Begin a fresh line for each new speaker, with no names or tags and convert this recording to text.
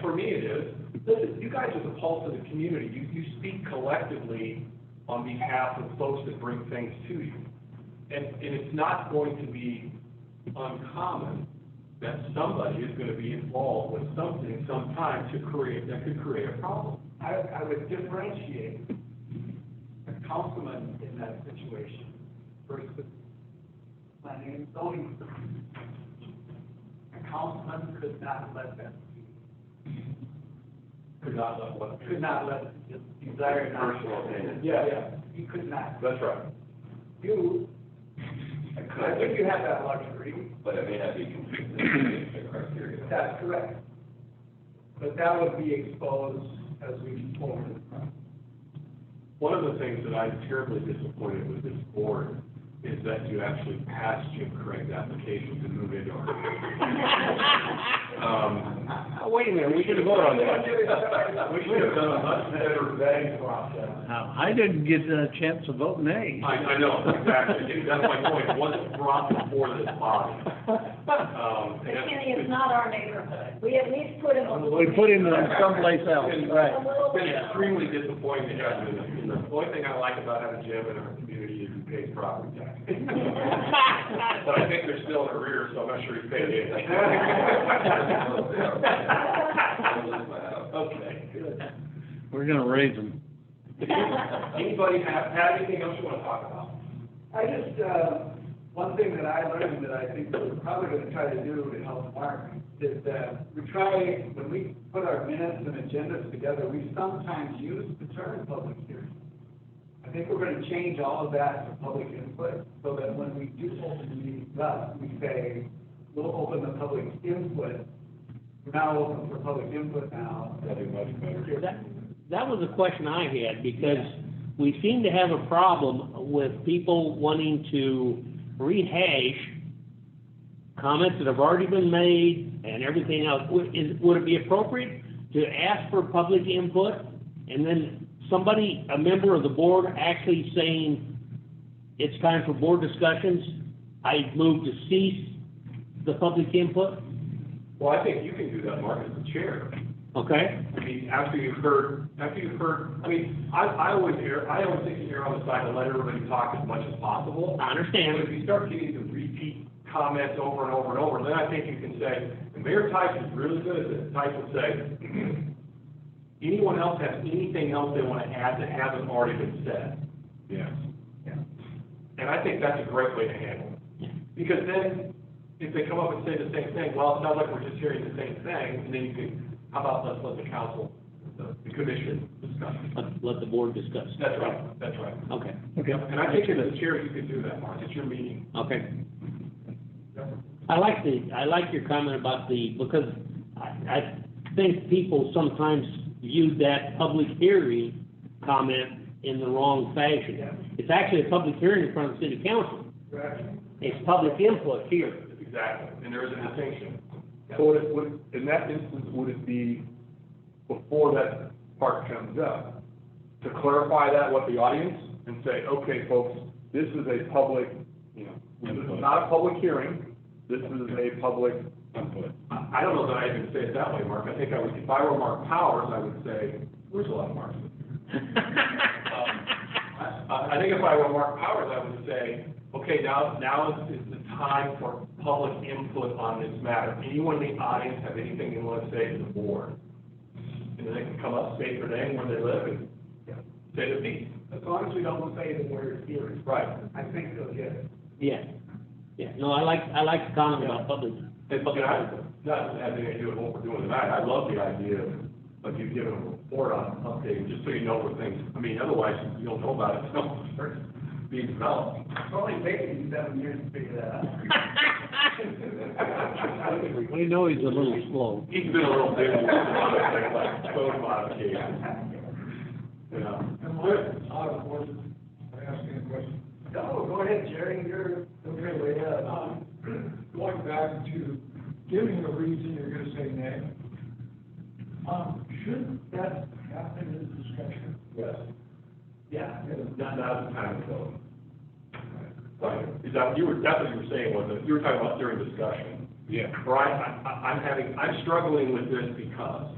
for me it is, listen, you guys are the pulse of the community. You, you speak collectively on behalf of folks that bring things to you. And, and it's not going to be uncommon that somebody is gonna be involved with something sometime to create, that could create a problem.
I, I would differentiate a councilman in that situation versus planning and zoning. A councilman could not let that,
Could not let what.
could not let his desire not.
Personal opinion.
Yeah, yeah,
He could not.
That's right.
You,
I
I think
could,
you have that luxury,
but it may not be consistent with the criteria.
that's correct. But that would be exposed as we move forward.
One of the things that I'm terribly disappointed with this board is that you actually passed Jim Craig's application to move into our. Um,
Wait a minute, we should vote on
We should have done a much better vetting process.
I didn't get a chance to vote nay.
I, I know, exactly, that's my point, it wasn't brought before this body. Um, and-
McKinney is not our neighborhood. We at least put him a little.
We put him in someplace else,
It's
right.
Been extremely disappointing, and the only thing I like about having Jim in our community is he pays property tax. But I think they're still in arrears, so I'm not sure he's paid anything.
I'll lose my house.
Okay, good.
We're gonna raise him.
Anybody have, have anything else you wanna talk about?
I just, uh, one thing that I learned that I think we're probably gonna try to do to help Mark is that we try, when we put our minutes and agendas together, we sometimes use the term public hearing. I think we're gonna change all of that to public input, so that when we do open meetings up, we say, we'll open the public input. We're now open for public input now.
That'd be much better.
That, that was a question I had, because we seem to have a problem with people wanting to rehash comments that have already been made and everything else. Would, is, would it be appropriate to ask for public input and then somebody, a member of the board actually saying, it's time for board discussions, I move to cease the public input,
Well, I think you can do that, Mark, as the chair.
okay?
I mean, after you've heard, after you've heard, I mean, I, I always hear, I always think you err on the side and let everybody talk as much as possible.
I understand.
But if you start getting the repeat comments over and over and over, then I think you can say, and Mayor Tyson's really good at this, Tyson say, anyone else have anything else they wanna add that hasn't already been said? Yes. And I think that's a great way to handle it. Because then, if they come up and say the same thing, well, it sounds like we're just hearing the same thing, and then you can, how about let's let the council, the the commission discuss it?
Let- Let the board discuss.
That's right, that's right.
Okay.
Okay.
And I think as a chair, you could do that, Mark, it's your meeting.
Okay. I like the, I like your comment about the, because I, I think people sometimes view that public hearing comment in the wrong fashion. It's actually a public hearing in front of the city council.
Right.
It's public input here.
Exactly, and there is a distinction.
So would, it- would, in that instance, would it be before that part comes up? To clarify that with the audience and say, okay, folks, this is a public, you know, this is not a public hearing, this is a public input.
I I don't know that I even say it that way, Mark. I think I would, if I were Mark Powers, I would say, there's a lot of Marks. Um, I, I think if I were Mark Powers, I would say, okay, now, now is, is the time for public input on this matter. Anyone in the audience have anything they want to say to the board? And then they can come up, state their name, where they live, and say their piece.
As long as we don't say the word hearing,
Right.
I think they'll get it.
Yeah. Yeah, no, I like, I like the comment about public.
And look, I, not having to do with what we're doing tonight, I love the idea of you giving a report on updating, just so you know where things, I mean, otherwise, you don't know about it, until it starts being developed.
It's only taken you seven years to figure that out.
We know he's a little slow.
He's been a little busy with a lot of things, like code modifications. Yeah.
No, go ahead, Jerry, you're, okay, way up.
Um, going back to giving the reason you're gonna say nay. Um, shouldn't that happen in discussion?
Yes.
Yeah.
Not, not the time ago. Right, is that, you were, that's what you were saying, wasn't it? You were talking about during discussion.
Yeah.
Brian, I, I, I'm having, I'm struggling with this because